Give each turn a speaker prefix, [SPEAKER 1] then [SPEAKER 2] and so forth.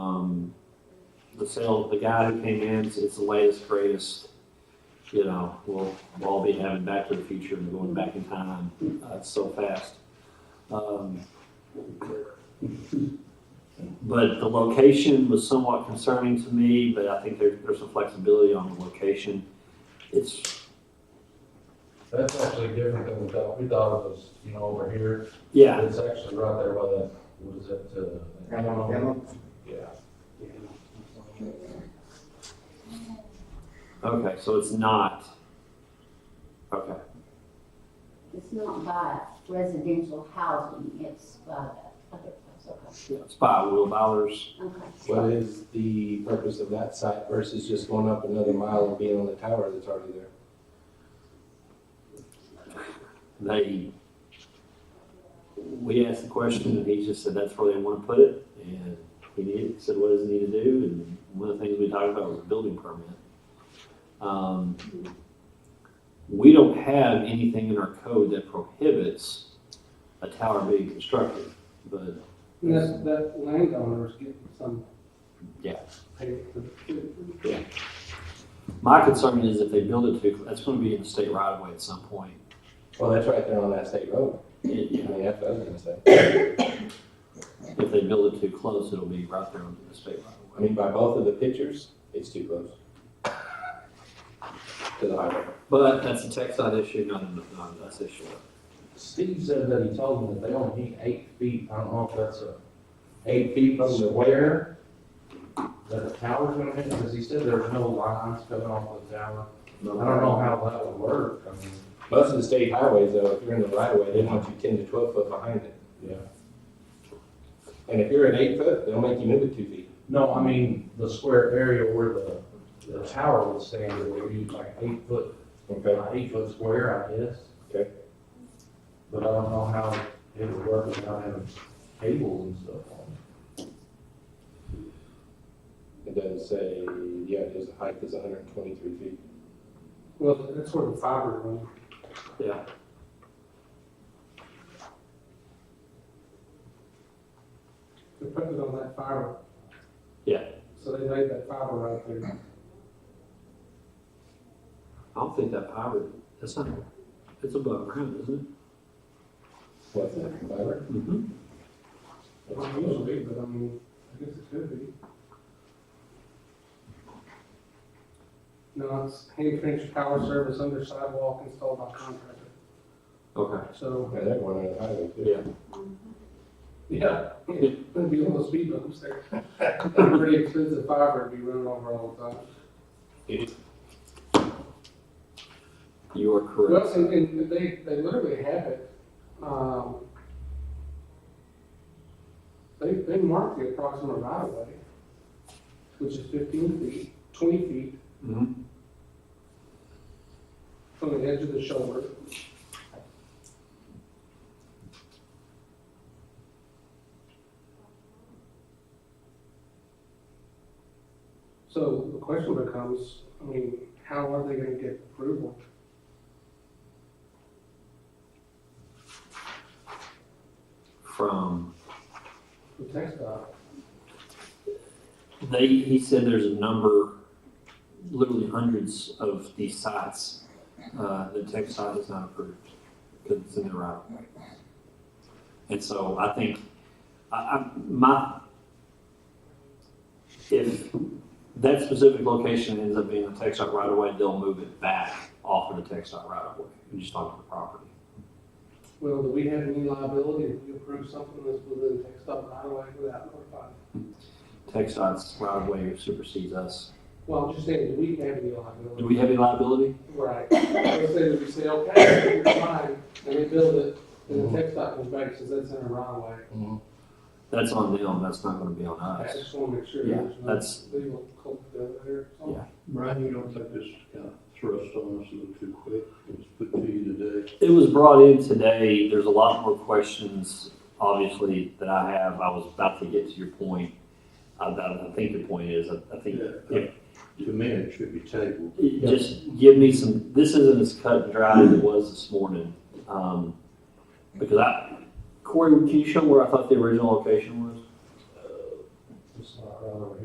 [SPEAKER 1] Um, the sale, the guy who came in, it's it's the latest, greatest, you know, we'll, we'll all be having Back to the Future and going back in time, uh, it's so fast. Um, But the location was somewhat concerning to me, but I think there, there's some flexibility on the location. It's,
[SPEAKER 2] That's actually different than we thought. We thought it was, you know, over here.
[SPEAKER 1] yeah,
[SPEAKER 2] It's actually right there by that, what is it, uh?
[SPEAKER 3] Alabama.
[SPEAKER 2] Yeah.
[SPEAKER 1] okay, so it's not, okay.
[SPEAKER 4] It's not by residential housing, it's by the other place,
[SPEAKER 1] Yeah, It's by Will Bowers.
[SPEAKER 4] okay, okay.
[SPEAKER 5] What is the purpose of that site versus just going up another mile and being on the tower that's already there?
[SPEAKER 1] They, we asked the question and he just said that's where they want to put it. And he needed, said, what does it need to do? And one of the things we talked about was a building permit. Um, We don't have anything in our code that prohibits a tower being constructed, but
[SPEAKER 3] That, that landowner's getting some.
[SPEAKER 1] Yeah.
[SPEAKER 3] pay for the-
[SPEAKER 1] my concern is if they build it too, that's going to be in the state right away at some point.
[SPEAKER 5] Well, that's right there on that state road. I
[SPEAKER 1] It-
[SPEAKER 5] mean, that's what I was gonna say.
[SPEAKER 1] If they build it too close, it'll be right there on the state right away.
[SPEAKER 5] I mean, by both of the pictures, it's too close. To the highway.
[SPEAKER 1] But that's a tech side issue, not a, not a us issue.
[SPEAKER 2] Steve said that he told them that they only need eight feet. I don't know if that's a, eight feet from the where that the tower's gonna hit, because he said there's no lines coming off the tower. I don't know how that would work. I mean,
[SPEAKER 5] Most of the state highways, though, if you're in the right of way, they want you ten to twelve foot behind it.
[SPEAKER 2] yeah.
[SPEAKER 5] And if you're at eight foot, they'll make you move it two feet.
[SPEAKER 2] No, I mean, the square area where the, the tower would stand, it would be like eight foot
[SPEAKER 5] Okay.
[SPEAKER 2] about eight foot square, I guess.
[SPEAKER 5] Okay.
[SPEAKER 2] But I don't know how it would work without having cables and stuff on
[SPEAKER 5] It does say, yeah, it is, the height is hundred and twenty-three feet.
[SPEAKER 3] Well, that's where the fiber runs.
[SPEAKER 1] Yeah.
[SPEAKER 3] They put it on that fiber.
[SPEAKER 1] Yeah.
[SPEAKER 3] So they laid that fiber right there.
[SPEAKER 1] I don't think that power, that's not, it's above ground, isn't
[SPEAKER 5] What's that, fiber?
[SPEAKER 1] it? Mm-hmm.
[SPEAKER 3] Not usually, but I mean, I guess it could be. No, it's hand finished power service under sidewalk installed by contractor.
[SPEAKER 1] Okay.
[SPEAKER 3] So,
[SPEAKER 5] Yeah, they're going on the highway too.
[SPEAKER 1] Yeah.
[SPEAKER 3] yeah, it'd be one of those speed bumps there. Pretty expensive fiber to be running over all the time.
[SPEAKER 1] You are
[SPEAKER 3] Well,
[SPEAKER 1] correct.
[SPEAKER 3] and, and they, they literally have it, um, they, they mark the approximate right of way, which is fifteen feet, twenty feet
[SPEAKER 1] Mm-hmm.
[SPEAKER 3] from the edge of the shoulder. So the question becomes, I mean, how are they gonna get approval?
[SPEAKER 1] From,
[SPEAKER 3] The text dot,
[SPEAKER 1] they, he said there's a number, literally hundreds of these sites, uh, the tech site is not approved, because it's in the right of way. And so I think, I, I, my, if that specific location ends up being a tech site right away, they'll move it back off of the tech site right away, and just onto the property.
[SPEAKER 3] well, do we have any liability if we approve something that's within text dot right away without notifying?
[SPEAKER 1] Tech site's right away supersedes us.
[SPEAKER 3] Well, I'm just saying, do we have any
[SPEAKER 1] Do
[SPEAKER 3] liability?
[SPEAKER 1] we have any liability?
[SPEAKER 3] Right, let's say that we say, okay, you're fine, and they build it, and the text dot comes back, and says that's in the right of way.
[SPEAKER 1] That's on them, that's not gonna be on
[SPEAKER 3] I
[SPEAKER 1] us.
[SPEAKER 3] just wanna make sure
[SPEAKER 1] Yeah,
[SPEAKER 3] there's no
[SPEAKER 1] that's-
[SPEAKER 3] legal conflict there.
[SPEAKER 1] Yeah.
[SPEAKER 6] Brian, you don't think this is kind of thrust on us a little too quick? It was put to you today.
[SPEAKER 1] It was brought in today, there's a lot more questions, obviously, that I have, I was about to get to your point. I, I I think the point is, I I think,
[SPEAKER 6] Yeah. To me, it should be tabled.
[SPEAKER 1] just give me some, this isn't as cut and dry as it was this morning. Um, because I, Corey, can you show where I thought the original location was?
[SPEAKER 2] it. It's not right over here.